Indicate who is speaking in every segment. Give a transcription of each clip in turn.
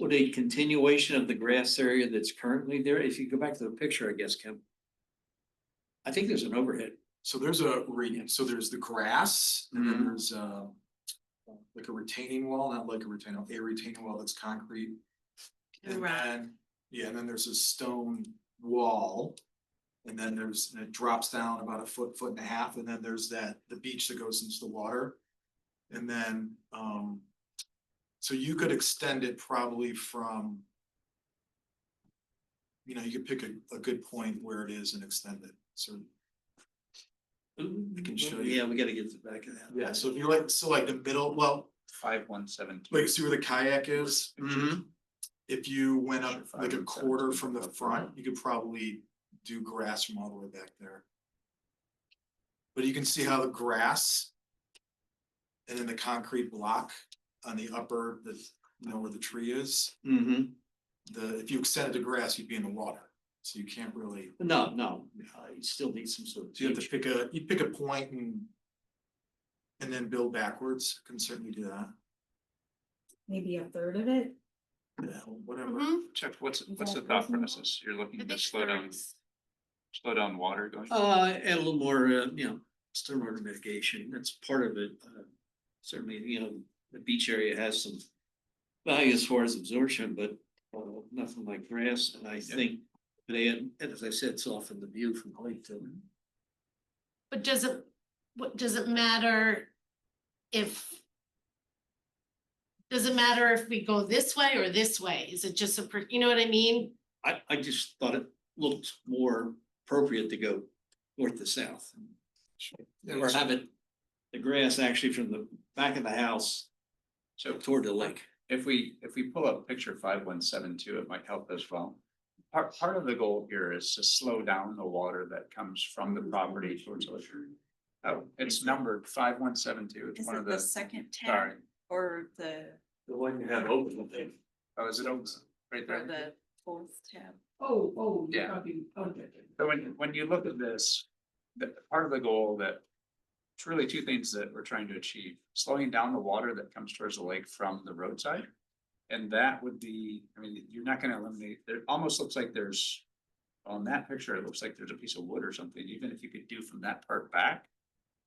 Speaker 1: Would a continuation of the grass area that's currently there, if you go back to the picture, I guess, Kim. I think there's an overhead.
Speaker 2: So there's a gradient, so there's the grass, and
Speaker 1: Mhm.
Speaker 2: then there's um Like a retaining wall, not like a retaining, a retaining wall that's concrete. And
Speaker 3: Right.
Speaker 2: then, yeah, and then there's a stone wall. And then there's, and it drops down about a foot, foot and a half, and then there's that, the beach that goes into the water. And then, um. So you could extend it probably from. You know, you could pick a, a good point where it is and extend it, so.
Speaker 1: I
Speaker 2: can show you.
Speaker 1: Yeah, we gotta get to the back of that.
Speaker 2: Yeah, so if you're like, so like the middle, well,
Speaker 4: Five one seven. two.
Speaker 2: like see where the kayak is?
Speaker 1: Mhm.
Speaker 2: If you went
Speaker 4: Sure,
Speaker 2: up
Speaker 4: five
Speaker 2: like a
Speaker 4: and seven,
Speaker 2: quarter
Speaker 4: two,
Speaker 2: from the
Speaker 4: four,
Speaker 2: front,
Speaker 4: five.
Speaker 2: you could probably do grass from all the way back there. But you can see how the grass. And then the concrete block on the upper, the, you know, where the tree is,
Speaker 1: hmm
Speaker 2: the, if you extended the grass, you'd be in the water. So you can't really,
Speaker 1: no, no, uh, you still need some sort of.
Speaker 2: so you have to pick a, you pick a point and. And then build backwards, can certainly do that,
Speaker 5: maybe a third of it.
Speaker 2: Yeah, whatever.
Speaker 3: Mhm.
Speaker 4: Chuck, what's, what's the thought process? You're
Speaker 3: I
Speaker 4: looking to
Speaker 3: think
Speaker 4: slow down,
Speaker 3: thirds.
Speaker 4: slow down water going?
Speaker 1: Uh, and a little more, uh, you know, stormwater mitigation, that's part of it. Uh, Certainly, you know, the beach area has some value as far as absorption, but uh, nothing like grass, and I think they, and as I said, soften the view from the lake to.
Speaker 3: But does it, what, does it matter if? Does it matter if we go this way or this way? Is it just a, per- you know what I mean?
Speaker 1: I, I just thought it looked more appropriate to go north to south. Or have it, the grass actually from the back of the house
Speaker 4: So
Speaker 1: toward the lake.
Speaker 4: if we, if we pull up picture five one seven two, it might help as well. Part, part of the goal here is to slow down the water that comes from the property towards the shore. Oh, it's numbered five one seven two. It's
Speaker 6: Is
Speaker 4: one
Speaker 6: it
Speaker 4: of
Speaker 6: the
Speaker 4: the,
Speaker 6: second
Speaker 4: sorry.
Speaker 6: tab or the,
Speaker 1: The one you have open, I think.
Speaker 4: Oh, is it open? Right
Speaker 6: or
Speaker 4: there.
Speaker 6: the fourth tab?
Speaker 5: Oh, oh,
Speaker 4: you're Yeah.
Speaker 5: talking, okay.
Speaker 4: So when, when you look at this, the part of the goal that. It's really two things that we're trying to achieve, slowing down the water that comes towards the lake from the roadside. And that would be, I mean, you're not gonna eliminate, it almost looks like there's. On that picture, it looks like there's a piece of wood or something, even if you could do from that part back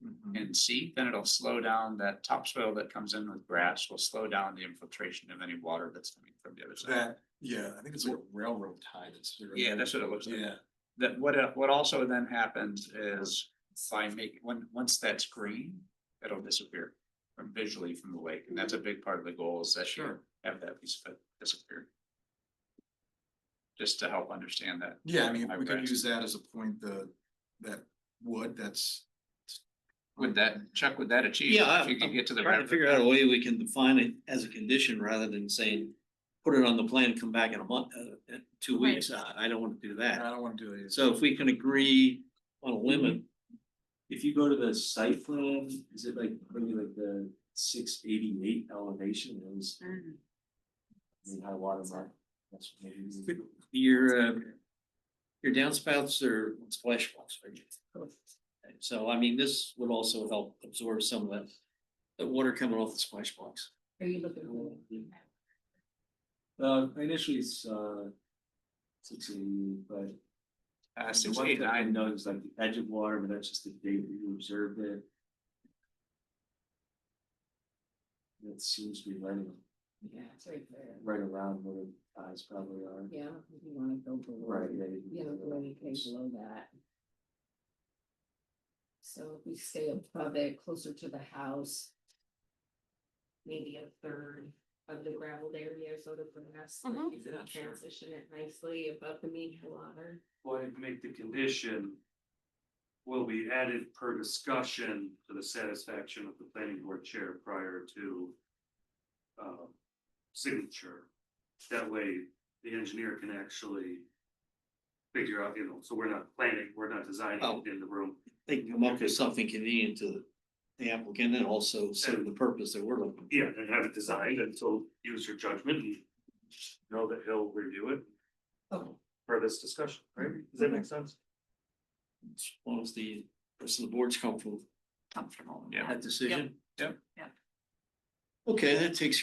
Speaker 2: Mhm.
Speaker 4: and see, then it'll slow down that topsoil that comes in with grass, will slow down the infiltration of any water that's coming from the other side.
Speaker 2: That, yeah, I think it's like railroad tied.
Speaker 4: Yeah, that's what it looks like.
Speaker 2: Yeah,
Speaker 4: that what uh, what also then happens is by make, when, once that's green, it'll disappear. From visually from the lake, and that's a big part of the goal is that you
Speaker 2: Sure.
Speaker 4: have that piece of it disappear. Just to help understand that.
Speaker 2: yeah, I mean,
Speaker 4: my
Speaker 2: we could
Speaker 4: grasp.
Speaker 2: use that as a point, the, that wood, that's.
Speaker 4: Would that, Chuck, would that achieve?
Speaker 1: Yeah, I-
Speaker 4: If you could get to the.
Speaker 1: Trying to figure out a way we can define it as a condition rather than saying, put it on the plan, come back in a month, uh, uh, two
Speaker 3: Right.
Speaker 1: weeks. I, I don't wanna do
Speaker 2: I
Speaker 1: that.
Speaker 2: don't wanna do it.
Speaker 1: So if we can agree on a limit. If you go to the site plan, is it like, maybe like the six eighty-eight elevation is the high water mark? That's maybe. Your, uh, your downspouts are splash walls, right? And so, I mean, this would also help absorb some of that, that water coming off the splash box.
Speaker 5: Are you looking?
Speaker 7: Uh, initially it's, uh, sixteen, but.
Speaker 4: Uh,
Speaker 7: the
Speaker 4: six,
Speaker 7: one
Speaker 4: eight,
Speaker 7: thing I
Speaker 4: nine,
Speaker 7: know is like the edge of water, but that's just the date that you observed it. It seems to be right, a-
Speaker 5: Yeah, it's right there.
Speaker 7: right around where the eyes probably are.
Speaker 5: Yeah, if you wanna go below.
Speaker 7: Right, yeah. you can
Speaker 5: Yeah,
Speaker 7: do
Speaker 5: go
Speaker 7: that.
Speaker 5: anything below that. So if we stay above it, closer to the house. Maybe a third of the gravelled area, so the grass, like
Speaker 3: Mhm.
Speaker 5: you can transition it nicely above the mean water.
Speaker 8: Well, I'd make the condition. Will be added per discussion to the satisfaction of the planning board chair prior to. Uh, signature, that way the engineer can actually. Figure out, you know, so we're not planning, we're not designing
Speaker 1: Oh.
Speaker 8: it in the room,
Speaker 1: they can come up with something convenient to the applicant and also serve the purpose that we're looking.
Speaker 8: yeah, and have it designed and so use your judgment and. Know that he'll review it.
Speaker 5: Okay.
Speaker 8: For this discussion, right, does that make sense?
Speaker 1: As long as the person of the board's comfortable
Speaker 6: Comfortable.
Speaker 1: with that decision.
Speaker 4: Yep,
Speaker 6: yep.
Speaker 1: Okay, that takes